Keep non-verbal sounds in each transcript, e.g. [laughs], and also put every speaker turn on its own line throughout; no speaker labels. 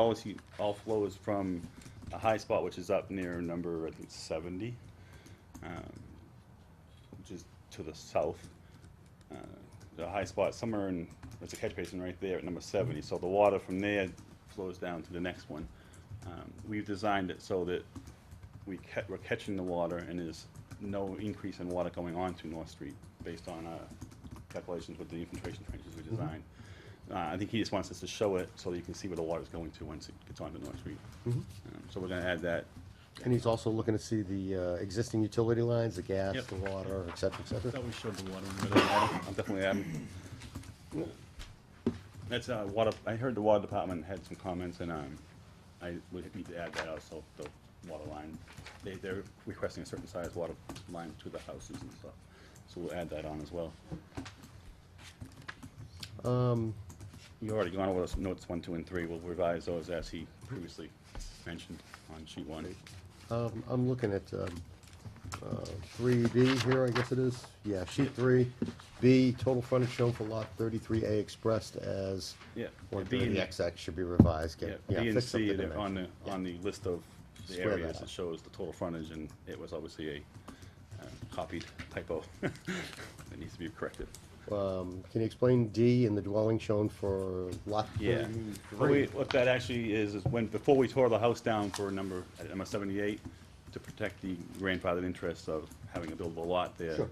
policy, all flow is from a high spot, which is up near number, I think, seventy, um, which is to the south. Uh, The high spot somewhere in, there's a catch basin right there at number seventy, so the water from there flows down to the next one. Um, We've designed it so that we ca- we're catching the water and there's no increase in water going on to North Street based on our calculations with the infiltration trenches we designed. Uh, I think he just wants us to show it so that you can see where the water's going to once it gets onto North Street. Um, So we're gonna add that.
And he's also looking to see the uh, existing utility lines, the gas,
Yep.
the water, et cetera, et cetera.
Thought we showed the water.
I'm definitely adding. That's, uh, water, I heard the water department had some comments and, um, I would need to add that also, the water line. They, they're requesting a certain size water line to the houses and stuff, so we'll add that on as well.
Um,
You already gone over those notes one, two, and three. We'll revise those as he previously mentioned on sheet one.
um, I'm looking at three B here, I guess it is. Yeah, sheet three, B, total frontage shown for lot thirty-three A expressed as
Yeah,
one
B and-
thirty XX should be revised.
Yeah,
get-
B and
fix up
C,
the
they're on the,
dimension.
on the list of the
Square that
areas,
up.
it shows the total frontage, and it was obviously a uh, copied typo [laughs] that needs to be corrected.
Um, Can you explain D in the dwelling shown for lot
Yeah,
Mm,
Oh, what we,
thirty-three?
what that actually is, is when, before we tore the house down for number, at number seventy-eight, to protect the grandfathered interests of having a buildable lot there,
Sure.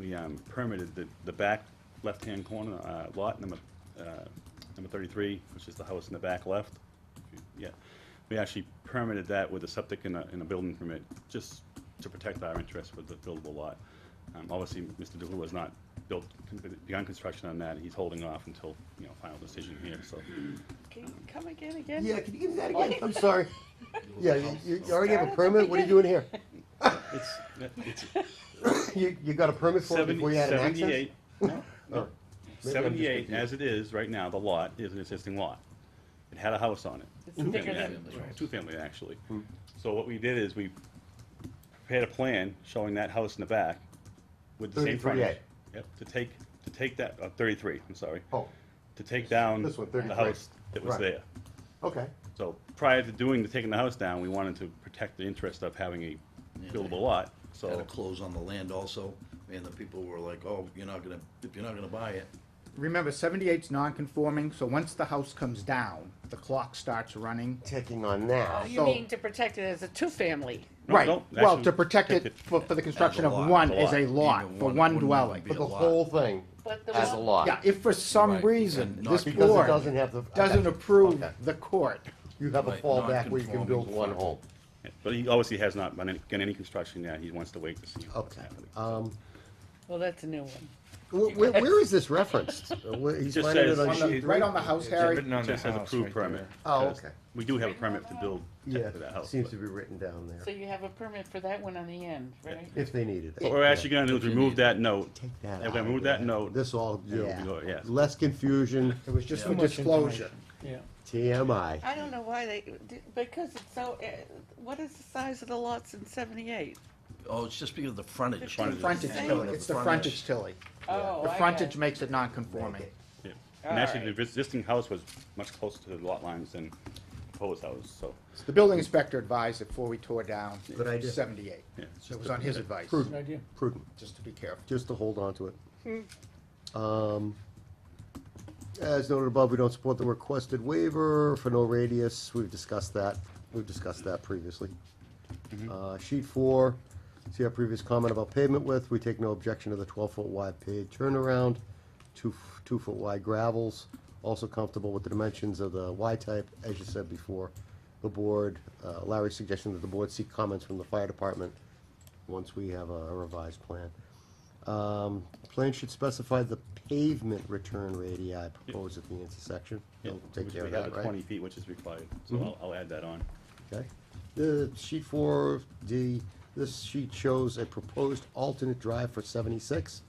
we, um, permitted the, the back left-hand corner, uh, lot number, uh, number thirty-three, which is the house in the back left. Yeah, we actually permitted that with a septic and a, and a building permit, just to protect our interests with the buildable lot. Um, obviously, Mr. DeHulu has not built, begun construction on that, he's holding off until, you know, final decision here, so.
Can you come again, again?
Yeah, can you give me that
[laughs]
again? I'm sorry. Yeah, you- you you already have a
Start at the
permit? What are you doing here?
It's, [laughs] it's
You, you got a permit for it before
seventy,
you had an access?
seventy-eight, no,
Or- Maybe I'm just
seventy-eight,
confused.
as it is right now, the lot is an existing lot. It had a house on it.
It's
Two
bigger
family,
than-
ac- Two family, actually.
Hmm.
So what we did is we prepared a plan showing that house in the back with the same
33A.
frontage. Yep, to take, to take that, uh, thirty-three, I'm sorry,
Oh,
to take down
This one,
the
33.
house that was
Right.
there.
oh, okay.
So prior to doing, the taking the house down, we wanted to protect the interest of having a
Yeah, they-
buildable lot, so.
Had to close on the land also, and the people were like, oh, you're not gonna, if you're not gonna buy it,
Remember, 78's non-conforming, so once the house comes down, the clock starts running.
Ticking on now.
Oh, you
So-
mean to protect it as a two-family?
No,
Right,
no,
well,
actually,
to protect
protect
it
it
for, for the construction of
lot,
one
as a
is a
lot.
lot,
Even
for
one
one
wouldn't
dwelling.
be
But the
a lot.
whole thing
But the
as a
one-
lot.
Yeah, if for some
Right,
reason,
and not
this
Because it
board
doesn't have the.
doesn't
okay,
approve
okay.
the court,
You have a
Right,
fallback where you can build
non-conforming.
one home.
Yeah, But he obviously has not done any, done any construction yet, he wants to wait to see what's
Okay.
happening.
Um,
Well, that's a new one.
wh- wh- where is this referenced? Uh, where- He's
Just
finding it
says-
on
On the-
sheet.
right on the house, Harry.
It just says approved permit.
Oh,
because
okay.
We do have a permit to build
Yeah,
for that house.
seems
but-
to be written down
So
there,
you have a permit for that one on the end, right?
if they needed it.
What we're actually gonna do is
If you
remove
need
that note,
Take
and
that
we're gonna
out,
remove that
yeah.
note,
This all,
it'll be
yeah,
go- yes.
less confusion,
It was just
Yeah.
for disclosure.
TMI.
I don't know why they, because it's so, uh, what is the size of the lots in seventy-eight?
oh, it's just because of the frontage.
Frontage.
Frontage,
Same.
Tilly. it's the frontage, Tilly.
Oh,
The
I
frontage
got-
makes it non-conforming.
yeah. and actually,
Alright.
the existing house was much closer to the lot lines than the proposed house, so.
The building inspector advised before we tore down
Good idea.
78.
Yeah, it's
It was on his advice,
Prudent, prudent.
just to be careful.
just to hold on to it. Um, As noted above, we don't support the requested waiver for no radius, we've discussed that, we've discussed that previously. Uh, sheet four, see our previous comment about pavement width, we take no objection to the twelve-foot wide paved turnaround, two, f- two-foot wide gravels, also comfortable with the dimensions of the Y-type, as you said before. The board, uh, Larry's suggestion that the board seek comments from the fire department once we have a revised plan. Um, Plan should specify the pavement return radii proposed at the intersection.
yeah,
They'll take
which
care
we
of
have
that,
the
right? Mm-hmm.
Twenty feet, which is required, so I'll, I'll add that on.
Okay. The sheet four D, this sheet shows a proposed alternate drive for seventy-six.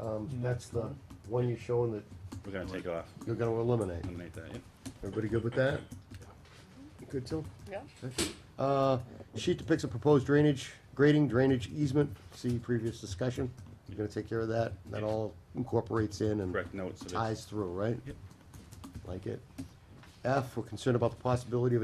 Um, that's the one you're showing that
We're gonna take off,
you're gonna eliminate.
eliminate that, yeah.
Everybody good with that? Good till?
Yeah.
Uh, sheet depicts a proposed drainage, grading, drainage easement, see previous discussion. You're gonna take care of that, that all incorporates in and
Correct notes of it.
ties through, right?
Yep.
Like it. F, we're concerned about the possibility of